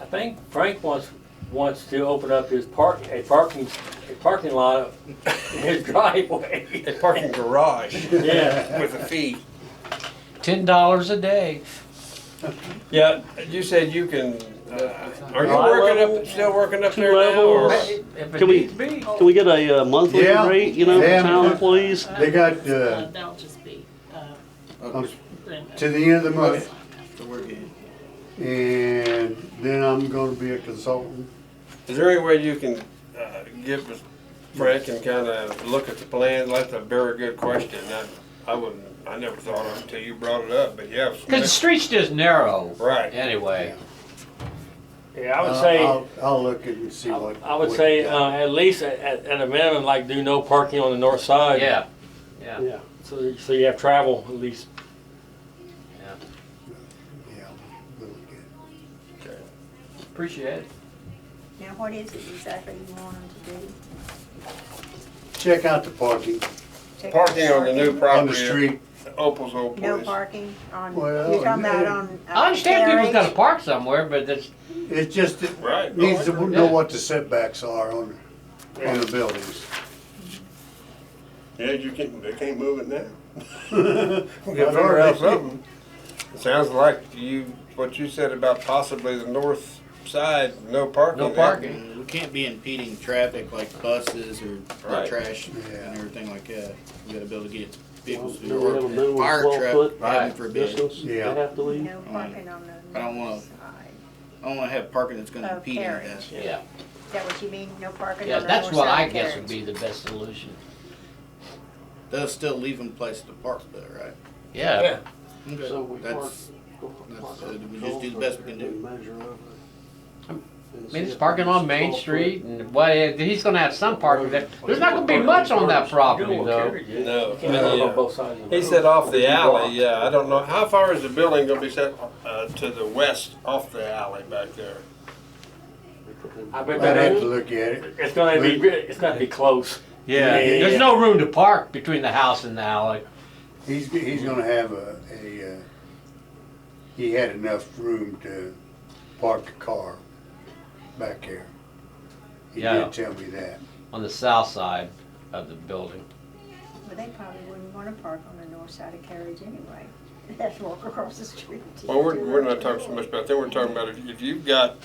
I think Frank wants, wants to open up his park, a parking, a parking lot in his driveway. A parking garage Yeah, with a fee. Ten dollars a day. Yeah, you said you can, uh, are you High working level? up, still working up there now? level or- or- If it Can we- needs be. Can we get a uh, monthly Yeah. rate, you know, Yeah. for town employees? They got, uh, That'll just be, uh, um, Brenda. to the end of the month, Okay. and then I'm gonna be a consultant. Is there any way you can uh, give us, Frank and kind of look at the plan? That's a very good question. I, I wouldn't, I never thought of it until you brought it up, but yeah. Cause the street's just narrow. Right. Anyway, yeah, I would I'll- say, Uh, I'll- I'll look at and see what. I would what say, they uh, got. at least at, at a minimum, like do no parking on the north side. yeah, yeah. Yeah, So, so you have travel at least. yeah. we'll get- Appreciate it. Now, what is it exactly you want them to do? Check out the parking Check out Parking on the new property. on the street. Opal's old No place. parking on, Well, you're talking about yeah. on. uh, I understand Carriage? people's gotta park somewhere, but that's, It just, it Right. no, needs to I- know what the setbacks are on, on the buildings. Yeah, you can't, they can't move it now. I've already- It sounds like you, what you said about possibly the north side, no parking. no there. parking. We can't be impeding traffic like buses or Right. trash Yeah. and everything like that. We gotta be able to get vehicles You know, we have a through minimum or fire 12 truck, foot heaven forbid. Distance, they Yeah. have to leave. No parking on the I don't wanna- north side. I don't wanna have parking that's gonna Oh, impede any of that. carriage. Yeah, Is that what you mean, no parking yeah, on the north side? that's what I guess would carriage? be the best solution. They'll still leave them place to park though, right? Yeah, So we That's, park- that's, uh, we just do the best we can do. Measure of it. I mean, it's parking on Main Street and, well, he's gonna have some parking there. There's not gonna be much on that property though. No. You can't live on both sides of the uh, He road. said off the alley, yeah, I don't know, how far is the building gonna be set, uh, to the west off the alley back there? I bet I'd have to that, look at it. it's gonna be, it's gonna be close. Yeah, Yeah. there's no room to park between the house and the alley. He's, he's gonna have a, a, uh, he had enough room to park the car back there. He Yeah. did tell me that. on the south side of the building. Well, they probably wouldn't wanna park on the north side of carriage anyway. They'd have to walk across the street. to- Well, we're, to we're not the talking so door. much about that, we're talking about if- if you've got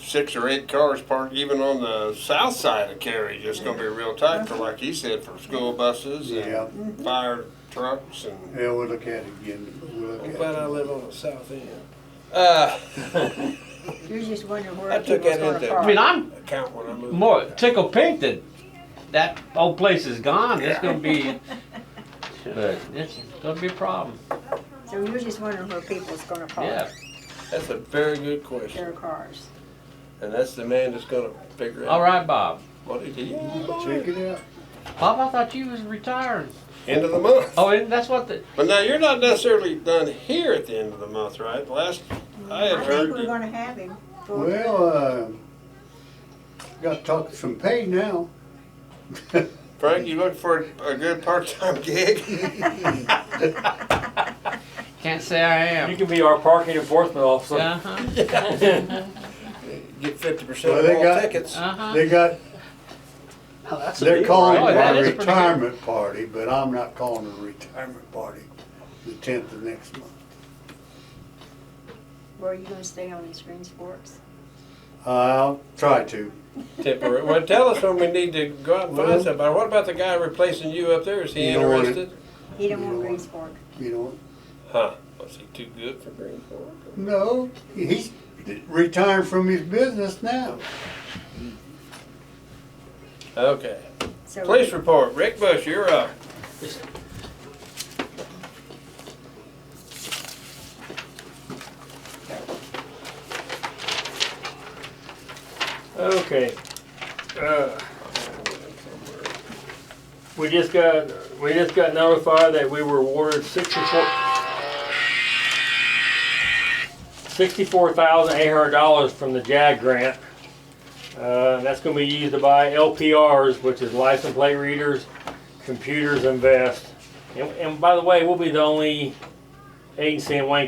six or eight cars parked even on the south side of Cary, it's gonna be real tight for, like he said, for school buses Yeah, and fire trucks and. yeah, we'll look at it again. We'll look I'm at glad I it. live on the south end. Uh, You're just wondering I where took people's that gonna into- park. I mean, I'm account when I moved. more tickled pink that that old place is gone. It's gonna be, but it's gonna be a problem. So you're just wondering where people's gonna Yeah, park That's a very good question, their cars. and that's the man that's gonna figure all out right, Bob. what he Check did. it out. Bob, I thought you was retiring. End of the month. Oh, and that's what the But now you're not necessarily done here at the end of the month, right? Last I had I think heard, we're you- gonna have him. for- Well, uh, got to talk some pay now. Frank, you look for a good part-time gig. can't say I You am. can be our parking enforcement officer. Uh huh. Get fifty percent Well, of they all got- tickets. Uh huh. They got, That's a they're big calling Oh, it that a is pretty good. retirement party, but I'm not calling it a retirement party. The tenth of next month. Where are you gonna stay on these green sports? I'll try to. Temporary. Well, tell us when we need to go out and find Well- somebody. What about the guy replacing you up there? Is he You don't want it. interested? He don't You want know green what? sport. You know, Huh? Was he too good for Greenport? No, he's retired from his business now. Okay. So Police report. Rick Bush, you're up. Okay. Uh, We just got, we just got notified that we were awarded sixty-four, sixty-four thousand eight hundred dollars from the JAG grant. Uh, that's gonna be used to buy LPRs, which is license plate readers, computers and vests. And, and by the way, we'll be the only agency in Wayne